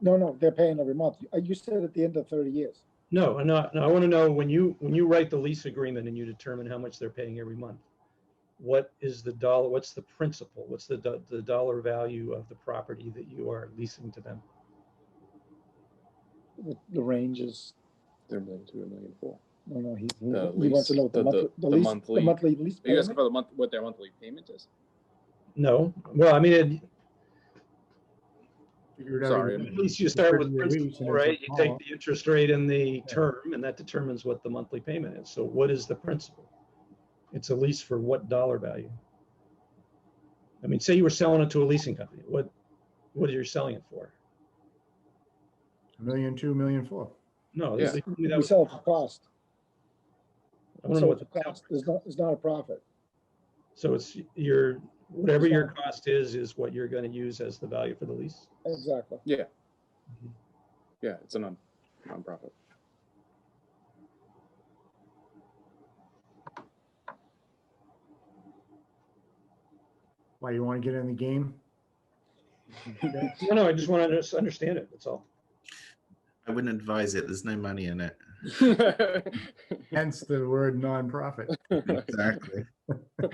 No, no, they're paying every month. Uh, You said at the end of thirty years. No, no, no, I want to know when you, when you write the lease agreement and you determine how much they're paying every month, what is the dollar, what's the principal, what's the, do- the dollar value of the property that you are leasing to them? The, the range is, They're million two, a million four. no, no, he, he- The he wants to lease- know what the the- monthly, the the- the lease, the monthly- monthly lease Are you asking payment. for the month, what their monthly payment is? No, well, I mean, it- figured out Sorry, it was- at least you start with Thirty-year lease, principal, and it's a right? You take call. the interest rate and the term, and that determines what the monthly payment is. So what is the principal? It's a lease for what dollar value? I mean, say you were selling it to a leasing company, what, what are you selling it for? A million two, million four. No, this is- that We was- sell it for cost. I don't know So what it's the a cost. It's not, it's not a profit. So it's your, whatever your cost is, is what you're gonna use as the value for the lease. Exactly. Yeah, it's a non, nonprofit. Why, you want to get in the game? No, no, I just wanna just understand it, that's all. I wouldn't advise it. There's no money in it. Hence the word nonprofit. Exactly. Well,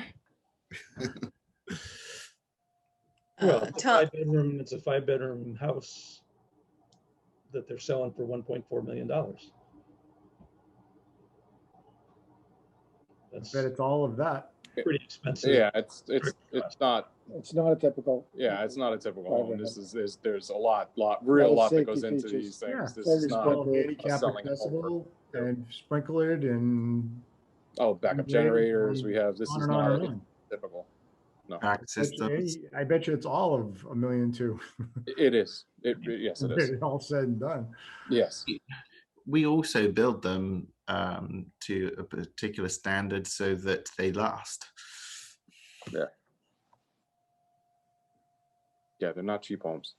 Uh, it's a Tom, five bedroom, it's a five bedroom house that they're selling for one point four million dollars. That's Bet it's all of that. pretty expensive. Yeah, it's, it's, it's not, It's not a typical. yeah, it's not a typical Private home. This home. is, there's, there's a lot, lot, real of lot that safety goes into features. these Yeah, things. This very is not, small. Well, a Handicap selling home for- accessible and sprinkled and oh, backup Yeah, generators um, we have. This on is and on not and on. typical. Back Bet you systems. any- I bet you it's all of a million two. It is. It, yes, it is. All said and done. Yes. We also build them um, to a particular standard so that they last. Yeah, they're not cheap homes.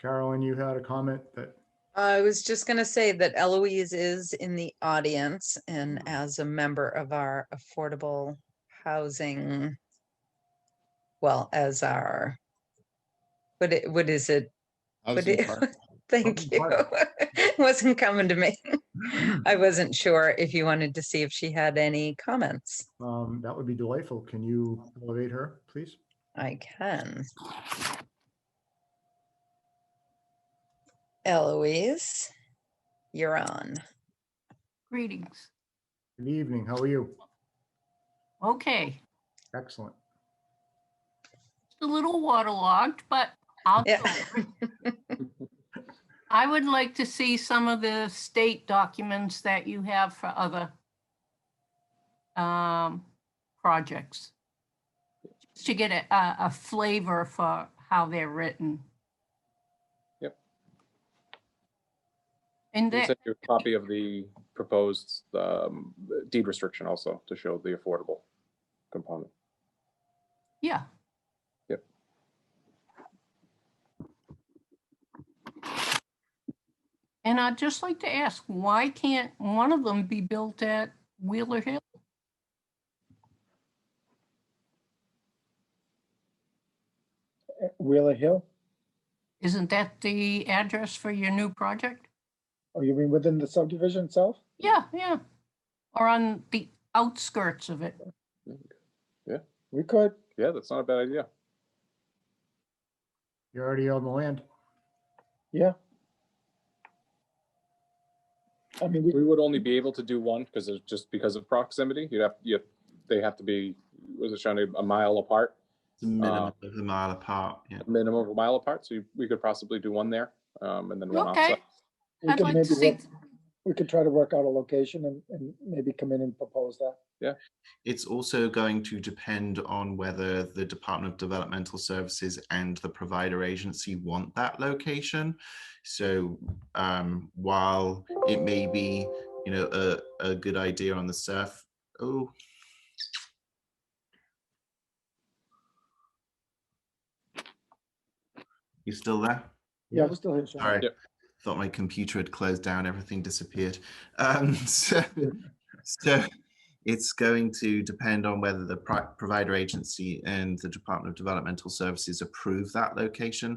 Carolyn, you had a comment that I was just going to say that Eloise is in the audience and as a member of our affordable housing, well, as our, what, i- what is it? What i- Thank you. Housing partner. Wasn't coming to me. I wasn't sure if you wanted to see if she had any comments. um, that would be delightful. Can you elevate her, please? I can. Eloise, you're on. Greetings. Good evening. How are you? Okay, Excellent. a little waterlogged, but I'll. Yeah. go over it. I would like to see some of the state documents that you have for other um, projects. Just to get a- a, a flavor for how they're written. Yep. And We that, sent you a copy of the proposed um, deed restriction also to show the affordable component. yeah. Yep. And I'd just like to ask, why can't one of them be built at Wheeler Hill? Wheeler Hill? Isn't that the address for your new project? Oh, you mean within the subdivision itself? Yeah, yeah. Or on the outskirts of it. We could. Yeah, that's not a bad idea. You're already on the land. Yeah. I mean, we, We would only be able to do one because it's just because of proximity. You'd have, you, they have to be, was it trying to, a mile apart, It's a minimum Uh, of a mile apart. Yeah. minimum of a mile apart. So you- we could possibly do one there um, and then one Okay, outside. we I'd could like to maybe, see, work- we could try to work out a location and, and maybe come in and propose that. It's also going to depend on whether the Department of Developmental Services and the provider agency want that location. So um, while it may be, you know, a, a good idea on the surf, oh, you still there? Yeah, Yeah. we're still here. Sean. Sorry, Yep. thought my computer had closed down, everything disappeared. Um, so, so it's going to depend on whether the pri- provider agency and the Department of Developmental Services approve that location.